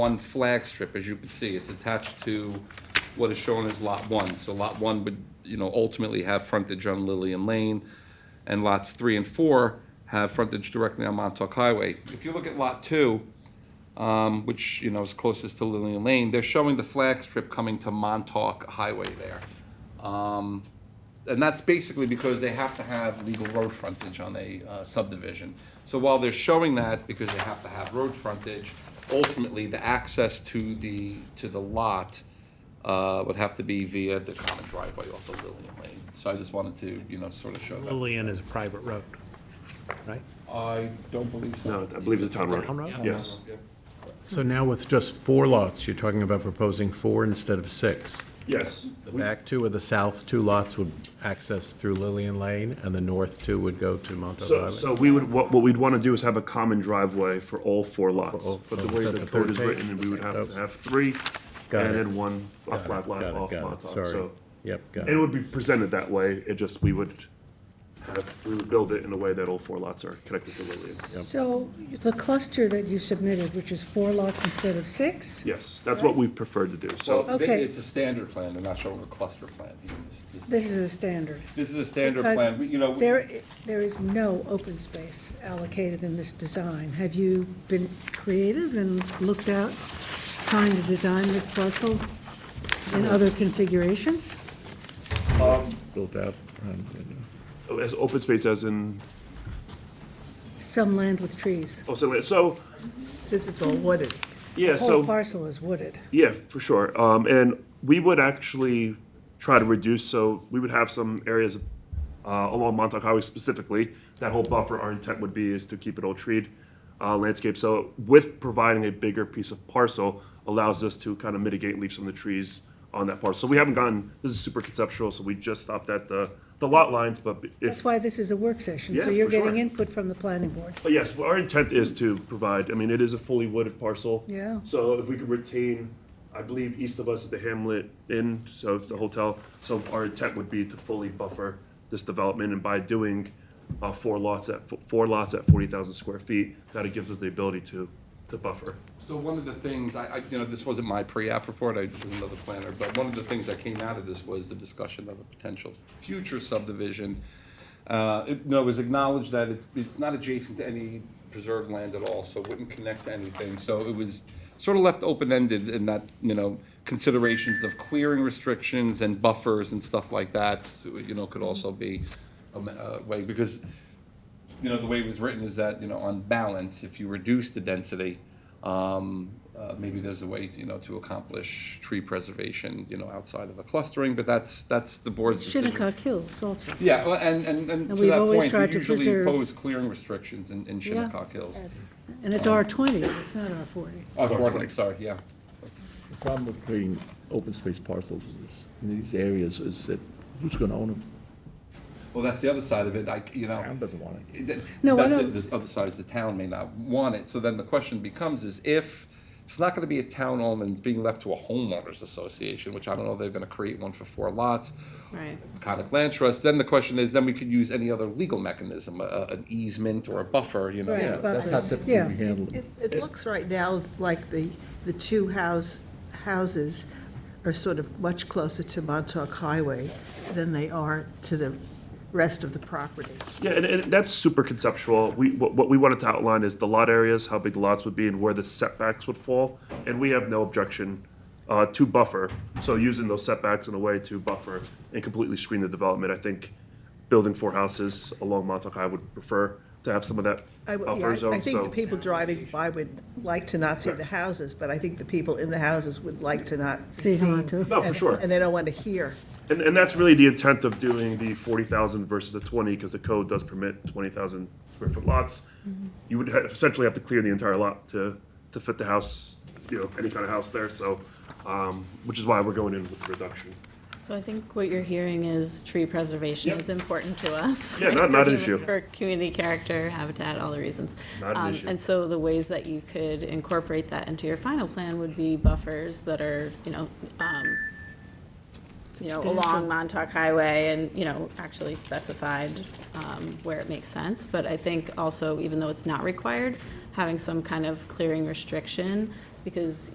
one flag strip, as you can see, it's attached to what is shown as Lot 1. So Lot 1 would, you know, ultimately have frontage on Lillian Lane, and Lots 3 and 4 have frontage directly on Montauk Highway. If you look at Lot 2, um, which, you know, is closest to Lillian Lane, they're showing the flag strip coming to Montauk Highway there. Um, and that's basically because they have to have legal road frontage on a uh, subdivision. So while they're showing that, because they have to have road frontage, ultimately, the access to the, to the lot uh, would have to be via the common driveway off of Lillian Lane. So I just wanted to, you know, sort of show that. Lillian is a private road, right? I don't believe No, I believe it's a town road. Town road? Yes. So now with just four lots, you're talking about proposing four instead of six. Yes. The back two or the south two lots would access through Lillian Lane, and the north two would go to Montauk So, Highway. so we would, what, what we'd want to do is have a common driveway for all four lots. all- But the oh, way is that the the code third is page? written, we would have to Okay. have three Got and it. then one, a Got it, flat lot got it, off got it, Montauk. sorry. So Yep, got it it. would be presented that way. It just, we would have, we would build it in a way that all four lots are connected to Lillian. So the cluster that you submitted, which is four lots instead of six? Yes, that's what we prefer to do. So So Okay. it's a standard plan, they're not showing a cluster plan. This is a standard. This is a standard plan, We- you know. Because we- There, i- there is no open space allocated in this design. Have you been creative and looked at trying to design this parcel in other configurations? Built out. um, as open space as in, Some land with trees, oh, so, so, since it's all wooded. yeah, The so. whole parcel is wooded. Yeah, for sure. Um, and we would actually try to reduce, so we would have some areas uh, along Montauk Highway specifically. That whole buffer, our intent would be is to keep it all treed uh, landscape. So with providing a bigger piece of parcel allows us to kind of mitigate, leave some of the trees on that parcel. So we haven't gone, this is super conceptual, so we just stopped at the, the lot lines, but That's if, why this is a work session, Yeah, so you're for sure. getting input from the planning board. but yes, well, our intent is to provide, I mean, it is a fully wooded parcel. Yeah. So if we could retain, I believe east of us is the Hamlet Inn, so it's the hotel. So our intent would be to fully buffer this development and by doing uh, four lots at, four lots at forty thousand square feet, that it gives us the ability to, to buffer. So one of the things, I, I, you know, this wasn't my pre-app report, I was another planner, but one of the things that came out of this was the discussion of a potential future subdivision. Uh, it, no, it was acknowledged that it's, it's not adjacent to any preserved land at all, so it wouldn't connect to anything, so it was sort of left open-ended in that, you know, considerations of clearing restrictions and buffers and stuff like that, you know, could also be a, me- a way, because you know, the way it was written is that, you know, on balance, if you reduce the density, um, uh, maybe there's a way, to, you know, to accomplish tree preservation, you know, outside of a clustering, but that's, that's the board's decision. Shinnecock Hills also. Yeah, well, and, and, and to we've that always point, tried we to usually preserve- impose clearing restrictions in, in Shinnecock Hills. And it's R twenty, it's not R forty. Oh, sorry, sorry, yeah. The problem with creating open space parcels in this- in these areas is that who's going to own them? Well, that's the other side of it, I, you know. Town doesn't want it. That- No, I that's don't- it. The other side is the town may not want it. So then the question becomes is if it's not going to be a town owned and it's being left to a homeowners association, which I don't know, they're going to create one for four lots. Right. Conic Land Trust, then the question is, then we could use any other legal mechanism, a- a, an easement or a buffer, you know. Right, yeah. buffers. That's how typically Yeah. we handle it. It, it looks right now like the, the two house, houses are sort of much closer to Montauk Highway than they are to the rest of the property. Yeah, and, and that's super conceptual. We, what, what we wanted to outline is the lot areas, how big the lots would be and where the setbacks would fall. And we have no objection, uh, to buffer. So using those setbacks in a way to buffer and completely screen the development, I think building four houses along Montauk High would prefer to have some of that I would- yeah, buffer I- I zone, think the so. people driving by would like to not see the Correct. houses, but I think the people in the houses would like to not be See seen. them too. No, for and- sure. And they don't want to hear. And, and that's really the intent of doing the forty thousand versus the twenty, because the code does permit twenty thousand square foot lots. You would ha- essentially have to clear the entire lot to, to fit the house, you know, any kind of house there, so, um, which is why we're going in with the reduction. So I think what you're hearing is tree preservation Yep. is important to us. Yeah, right, not- not for an human- issue. For community character, habitat, all the reasons. Not an Um, issue. And so the ways that you could incorporate that into your final plan would be buffers that are, you know, um, you know, along Montauk Highway and, you know, actually specified um, where it makes sense. But I think also, even though it's not required, having some kind of clearing restriction, because